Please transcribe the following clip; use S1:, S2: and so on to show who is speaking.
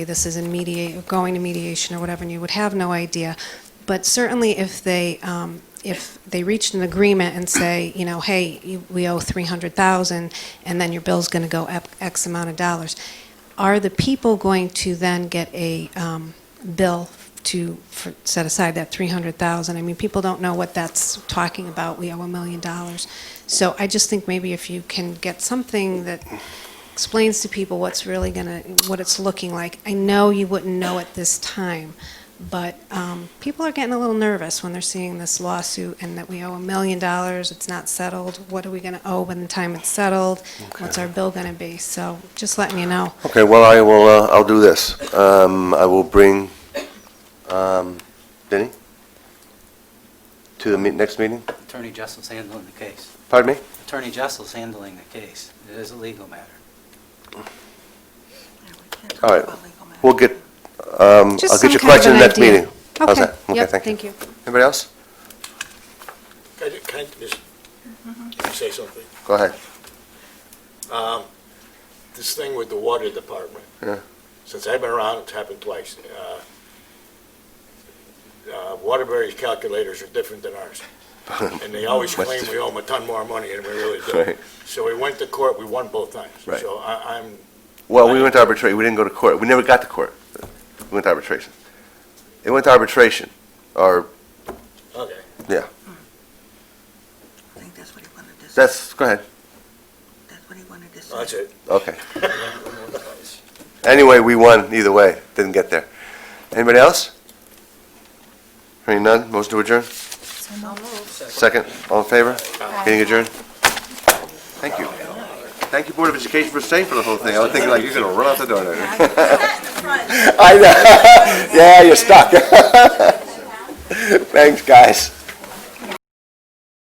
S1: this is in mediate, going to mediation or whatever, and you would have no idea. But certainly if they, um, if they reached an agreement and say, you know, hey, you- we owe 300,000, and then your bill's going to go up X amount of dollars, are the people going to then get a um, bill to for- set aside that 300,000? I mean, people don't know what that's talking about, we owe a million dollars. So I just think maybe if you can get something that explains to people what's really going to, what it's looking like. I know you wouldn't know at this time, but um, people are getting a little nervous when they're seeing this lawsuit and that we owe a million dollars, it's not settled, what are we going to owe when the time it's settled? What's our bill going to be? So just letting you know.
S2: Okay, well, I will, uh, I'll do this. Um, I will bring, um, Denny to the meet- next meeting.
S3: Attorney Jessel's handling the case.
S2: Pardon me?
S3: Attorney Jessel's handling the case. It is a legal matter.
S2: All right, we'll get, um,
S1: Just some
S2: I'll get your
S1: kind of
S2: question
S1: an
S2: next
S1: idea.
S2: meeting. How's that?
S1: Okay, yep,
S2: thank you.
S1: thank you.
S2: Anybody else?
S4: Can I ju- can I just can I say something?
S2: Go ahead.
S4: Um, This thing with the water department.
S2: Yeah.
S4: Since I've been around, it's happened twice. Uh, uh, Waterbury's calculators are different than ours. And they always
S2: Much
S4: claim we owe them a ton more money than we really do.
S2: Right.
S4: So we went to court, we won both times.
S2: Right.
S4: So I- I'm,
S2: Well, we went to arbitration, we didn't go to court, we never got to court. We went to arbitration. It went to arbitration, or,
S4: okay.
S5: I think that's what he wanted to say.
S2: that's, go ahead,
S5: That's what he wanted to say.
S4: That's it.
S2: okay.
S4: Twice.
S2: Anyway, we won either way, didn't get there. Anybody else? Hearing none, motion to adjourn? Second, all in favor? Meeting adjourned? Thank you. Thank you, Board of Education, for staying for the whole thing. I was thinking like, you're gonna run out the door there. I know, yeah, you're stuck. Thanks, guys.